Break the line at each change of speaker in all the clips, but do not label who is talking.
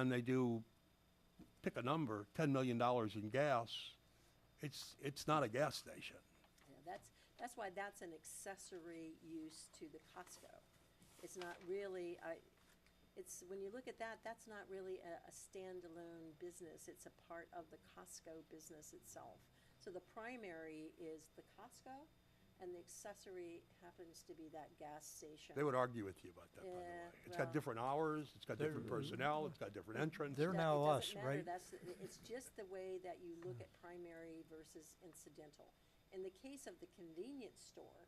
and they do, pick a number, ten million dollars in gas, it's, it's not a gas station.
Yeah, that's, that's why that's an accessory use to the Costco. It's not really, I, it's, when you look at that, that's not really a, a standalone business. It's a part of the Costco business itself. So the primary is the Costco, and the accessory happens to be that gas station.
They would argue with you about that, by the way.
Yeah,
It's got
well-
different hours, it's got different personnel, it's got different entrance.
They're
That-
now
it
us,
doesn't matter.
right?
That's, it's just the way that you look at primary versus incidental. In the case of the convenience store,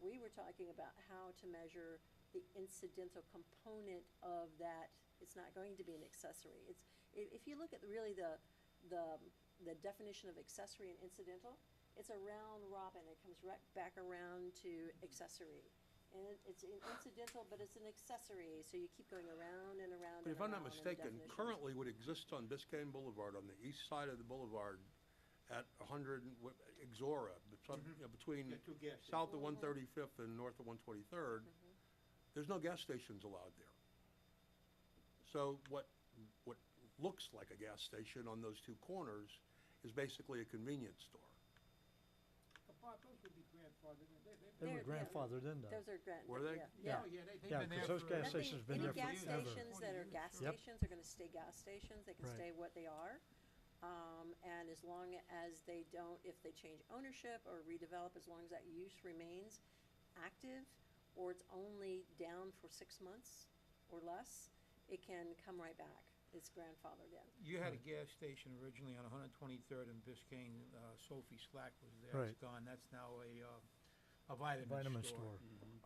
we were talking about how to measure the incidental component of that. It's not going to be an accessory. It's, if, if you look at really the, the, the definition of accessory and incidental, it's a round robin. It comes right back around to accessory. And it- it's an incidental, but it's an accessory, so you keep going around and around and around.
But if I'm not
in the
mistaken,
definitions.
currently what exists on Biscayne Boulevard, on the east side of the boulevard, at hundred, Exora, bet- some- you know, between
Yeah, two gas stations.
south of one thirty-fifth and north of one twenty-third, there's no gas stations allowed there. So what, what looks like a gas station on those two corners is basically a convenience store.
But Bob, those would be grandfathered in. They- they-
They were
They're- yeah.
grandfathered in though.
Those are grand.
Were they?
yeah, Yeah.
Yeah, yeah, they- they've
Yeah, 'cause
been there
those
for-
gas
Nothing-
station's been
any
there for
gas
forever.
stations that are gas
Yep.
stations are gonna stay gas stations, they can
Right.
stay what they are. Um, and as long as they don't, if they change ownership or redevelop, as long as that use remains active, or it's only down for six months or less, it can come right back, it's grandfathered in.
You had a gas station originally on 123rd and Biscayne, uh, Sophie Slack was there.
Right.
It's gone. That's now a, uh, a vitamin store.
Vitamin store,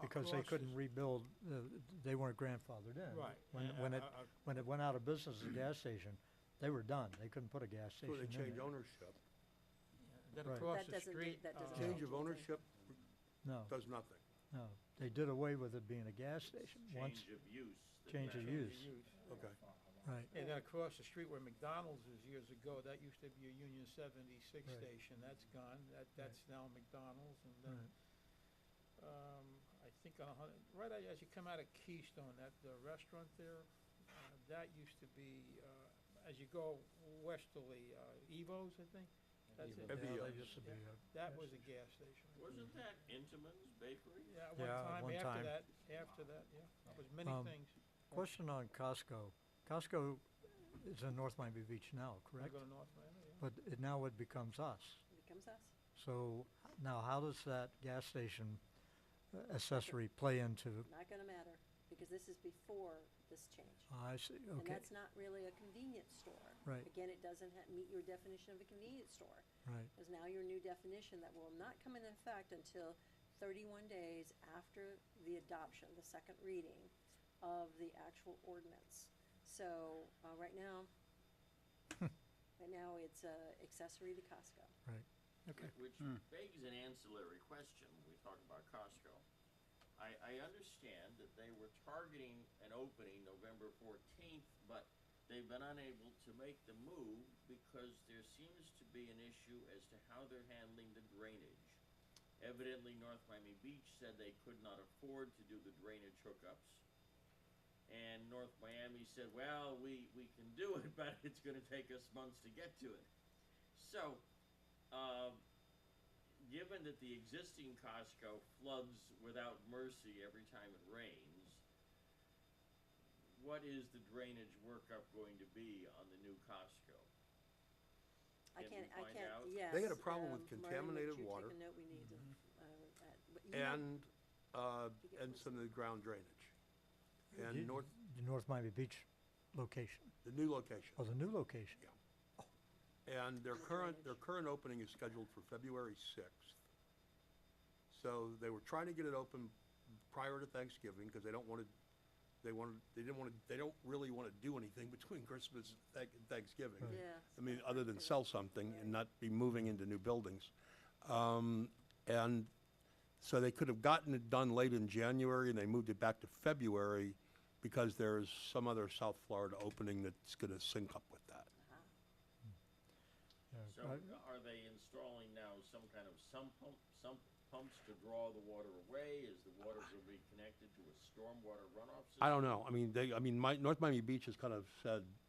because they
Across
couldn't
the-
rebuild, uh, they weren't grandfathered in.
Right. uh,
When,
and
when
I-
it,
I- I-
when it went out of business, the gas station, they were done. They couldn't put a gas
So
station
they
in
change
there.
ownership.
Then
Right.
across
That
the
doesn't do-
street.
that doesn't
uh,
Change of ownership
No,
does nothing.
no. They did away with it being a gas station once,
Change of use. that
change of
matters.
use.
Okay.
Right,
And then across the street where McDonald's is years ago, that used to be a Union 76
Right.
station. That's gone. That, that's now McDonald's and
right.
then Um, I think on a hundred, right a- as you come out of Keystone, that, the restaurant there, uh, that used to be, uh, as you go westerly, uh, Evo's, I think? That's
Evo's.
it.
Yeah,
Evian.
they used to be
Yeah.
a-
That was a gas station.
Wasn't that Intamin's Bakery?
Yeah,
Yeah, at one
one time, after
time.
that, after that, yeah, it was many
Um,
things.
Question on Costco. Costco is in North Miami Beach now,
I
correct?
go to North Miami, yeah.
But it, now it becomes us.
It becomes us.
So h- now how does that gas station uh, accessory play into,
Not gonna matter, because this is before this change.
I see,
And
okay,
that's not really a convenience store.
Right.
Again, it doesn't ha- meet your definition of a convenience store.
right,
is now your new definition that will not come into effect until thirty-one days after the adoption, the second reading of the actual ordinance. So, uh, right now,
Hmm.
right now it's, uh, accessory to Costco.
right, okay.
Which begs an ancillary question, when we talk about Costco. I, I understand that they were targeting an opening November fourteenth, but they've been unable to make the move because there seems to be an issue as to how they're handling the drainage. Evidently, North Miami Beach said they could not afford to do the drainage hookups. And North Miami said, well, we, we can do it, but it's gonna take us months to get to it. So, uh, given that the existing Costco floods without mercy every time it rains, what is the drainage workup going to be on the new Costco?
I
Can
can't,
we
I
find
can't,
out?
yes.
They had a problem with
um, Marlene, would you
contaminated
take a
water. Mm-hmm.
note? we need to, uh, uh, but you know-
And, uh,
You get
and
first.
some of the ground drainage.
Y-
And north,
The North Miami Beach location,
the new location.
or the new location,
And their
And the
current, their
drainage.
current opening is scheduled for February sixth. So they were trying to get it open prior to Thanksgiving, because they don't want to, they wanted, they didn't want to, they don't really want to do anything between Christmas and Thank- and Thanksgiving.
Right.
Yeah.
I mean, other than sell something and not be moving into new buildings. Um, and so they could have gotten it done late in January and they moved it back to February because there's some other South Florida opening that's gonna sync up with that.
yeah,
So
I-
are they installing now some kind of sump pump, sump pumps to draw the water away? Is the water going to be connected to a stormwater runoff system?
I don't know, I mean, they, I mean, my, North Miami Beach has kind of said,